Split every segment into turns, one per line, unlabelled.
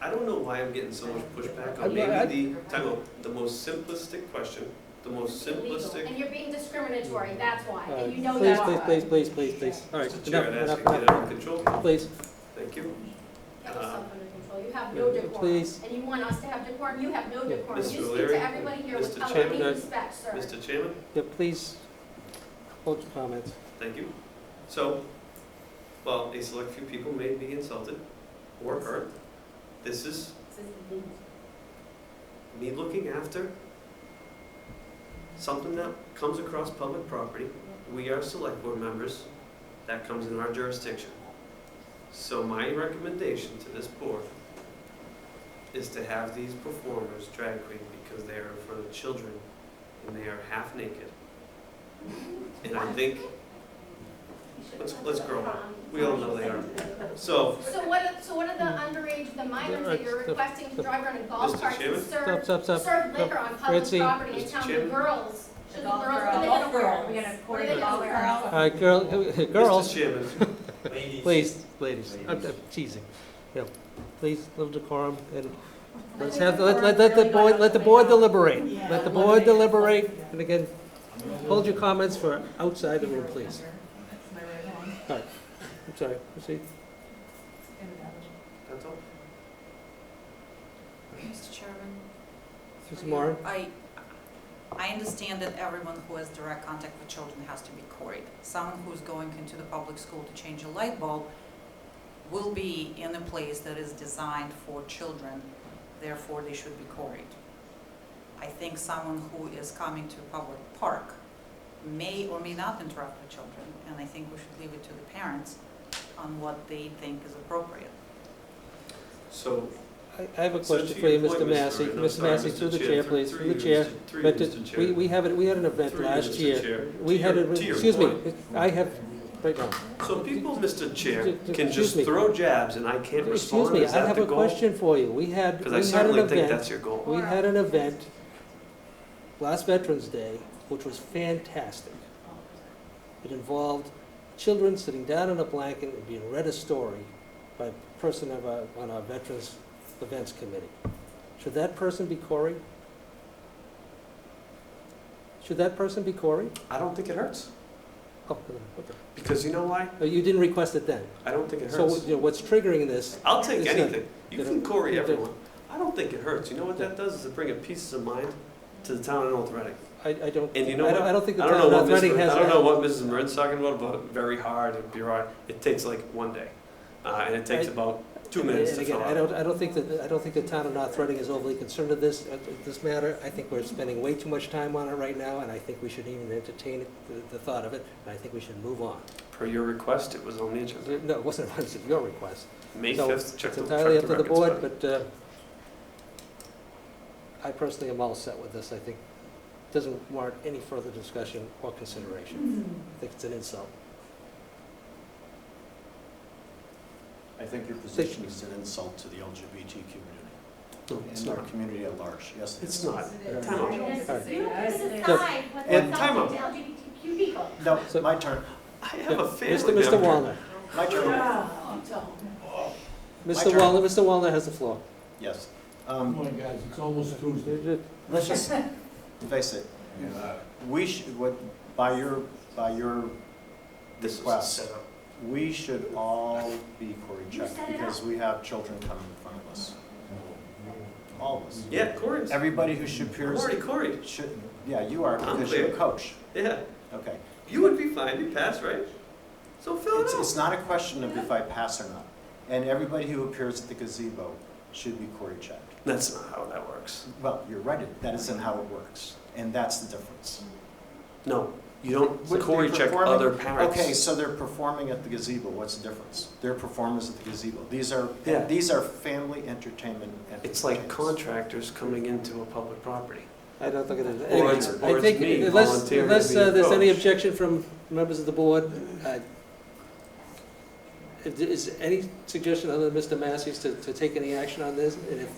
I don't know why I'm getting so much pushback
I-
on
I-
maybe the, Tyler, the most simplistic question, the most simplistic.
And you're being discriminatory, that's why, and you know
Uh, Please,
that.
please, please, please, please, please. All right,
Mr. Chair, I'd
enough,
ask you to
enough,
get it
enough.
under control.
Please,
Thank you.
Have
Uh,
yourself under control, you have no decorum.
Please.
And you want us to have decorum, you have no decorum.
Mr.
You speak
O'Leary,
to everybody here
Mr.
without
Chairman, uh,
any
I-
respect, sir.
Mr. Chairman,
yeah, please hold your comments.
thank you. So, while a select few people may be insulted or hurt, this is me looking after something that comes across public property, we are select board members, that comes in our jurisdiction. So my recommendation to this board is to have these performers drag queen because they are in front of children and they are half naked. And I think, let's, let's grow up, we all know they are. So,
So what, are- so what are the underage, the minors that you're
Stop.
requesting to drive around in golf
Mr.
carts and
Chairman?
Stop,
serve,
stop, stop.
serve liquor on public
Ritzy.
property and
Mr.
tell the
Chairman?
girls? Should the girls,
Golf
what are they
girls.
gonna wear?
We're gonna
What are they gonna
golf
wear?
girls.
All right, Uh, girl, girls,
Mr. Chairman,
please, ladies, I'm
Ladies.
I'm teasing. Yeah, please, little decorum, and
I
let's
think
have,
the
let,
decorum
let, let the
really
board,
went
let the
out
board
the window.
deliberate.
Yeah.
Let the board deliberate,
Yeah.
and again, hold your comments for outside the room,
That's
please.
my right one.
I'm sorry, proceed.
that's all.
Mr. Chairman.
Mrs.
through you,
Moran?
I, I understand that everyone who has direct contact with children has to be queried. Someone who's going into the public school to change a light bulb will be in a place that is designed for children, therefore they should be queried. I think someone who is coming to a public park may or may not interact with children, and I think we should leave it to the parents on what they think is appropriate.
So
I I have a
So
question
to
for you,
your point,
Mr. Massey.
Aaron, I'm
Mr.
sorry,
Massey, through the chair, please,
Three
through the
you,
chair.
Mr. Three you,
But did-
Mr. Chair.
we, we have, it- we had an event
Through you,
last
Mr.
year.
Chair.
We
To
had,
your-
a-
to your
excuse me,
point.
it- I have, right now.
So people, Mr. Chair,
Excuse
can just
me.
throw jabs and I can't
Excuse
respond,
me,
is
I
that
have
the
a
goal?
question for you. We had,
Because I
we had an
certainly think
event,
that's your goal.
we had an event last Veterans Day, which was fantastic. It involved children sitting down in a blanket and being read a story by a person of our, on our Veterans Events Committee. Should that person be Corey? Should that person be Corey?
I don't think it hurts,
Oh, okay.
because you know why?
Oh, you didn't request it then.
I don't think it
So,
hurts.
you know, what's triggering this,
I'll take
it's not-
anything. You
you
can
know,
Corey
you don't-
everyone. I don't think it hurts. You know what that does is it bring a peace of mind to the town of North Reading.
I, I don't, I
And you know
don't,
what?
I don't think the
I don't know
town
what
of
Ms.
Reading
Marin-
has.
I don't know what Mrs. Marin's talking about, but very hard and bureaucratic. It takes like one day. Uh, and it takes
I-
about two
And-
minutes
and
to
again,
fill
I
out.
don't, I don't think that, I don't think the town of North Reading is overly concerned with this, uh, this matter. I think we're spending way too much time on it right now, and I think we should even entertain it- the, the thought of it, and I think we should move on.
Per your request, it was on the agenda.
No, it wasn't, it wasn't your request.
May
So,
fifth, check
It's
the, check
entirely up to the
records,
board,
but-
but, uh, I personally am all set with this, I think. Doesn't warrant any further discussion or consideration. I think it's an insult.
I think your position is an insult to the LGBT community
No, it's
and our
not.
community at large. Yes, it
It's
is.
not. Time
You
out.
don't
Alright.
decide whether
Yeah,
it's
time
something to LGBTQ people.
No,
So-
my turn,
I have a
Mr.
family
Mr.
member.
Wallner,
my turn.
Oh, don't.
Mr.
turn.
Wallner, Mr. Wallner has the floor.
Yes.
Come
Um,
on, guys, it's almost Tuesday.
Let's just face it. We should, what, by your, by your,
This was a
Request.
setup.
we should all be Cory checked
set it
because we have children coming in front of us. All of us.
Yeah, Corey's. I'm
Everybody who should peers,
already Corey.
should, yeah, you are
I'm
because you're a
clear.
coach.
Yeah,
Okay.
you would be fine. You passed, right? So fill it
It's,
out.
it's not a question of if I pass or not. And everybody who appears at the gazebo should be Cory checked.
That's not how that works.
Well, you're right, it- that isn't how it works, and that's the difference.
No, you don't.
Would they
Corey check
performing-
other parents.
Okay, so they're performing at the gazebo, what's the difference? They're performers at the gazebo, these are,
Yeah.
these are family entertainment
It's like
entertainers.
contractors coming into a public property.
I don't think it is.
Or it's-
Anyway,
or
I
it's
think
me
unless,
volunteering
unless
to be
uh, there's any
coach.
objection from members of the board, uh, is- is any suggestion other than Mr. Massey's to, to take any action on this? And if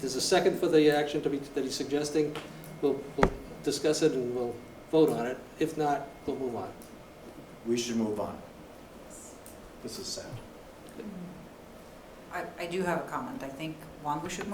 there's a second for the action to be, that he's suggesting, we'll, we'll discuss it and we'll vote on it. If not, we'll move on.
We should move on. This is sad.
I, I do have a comment. I think, one, we should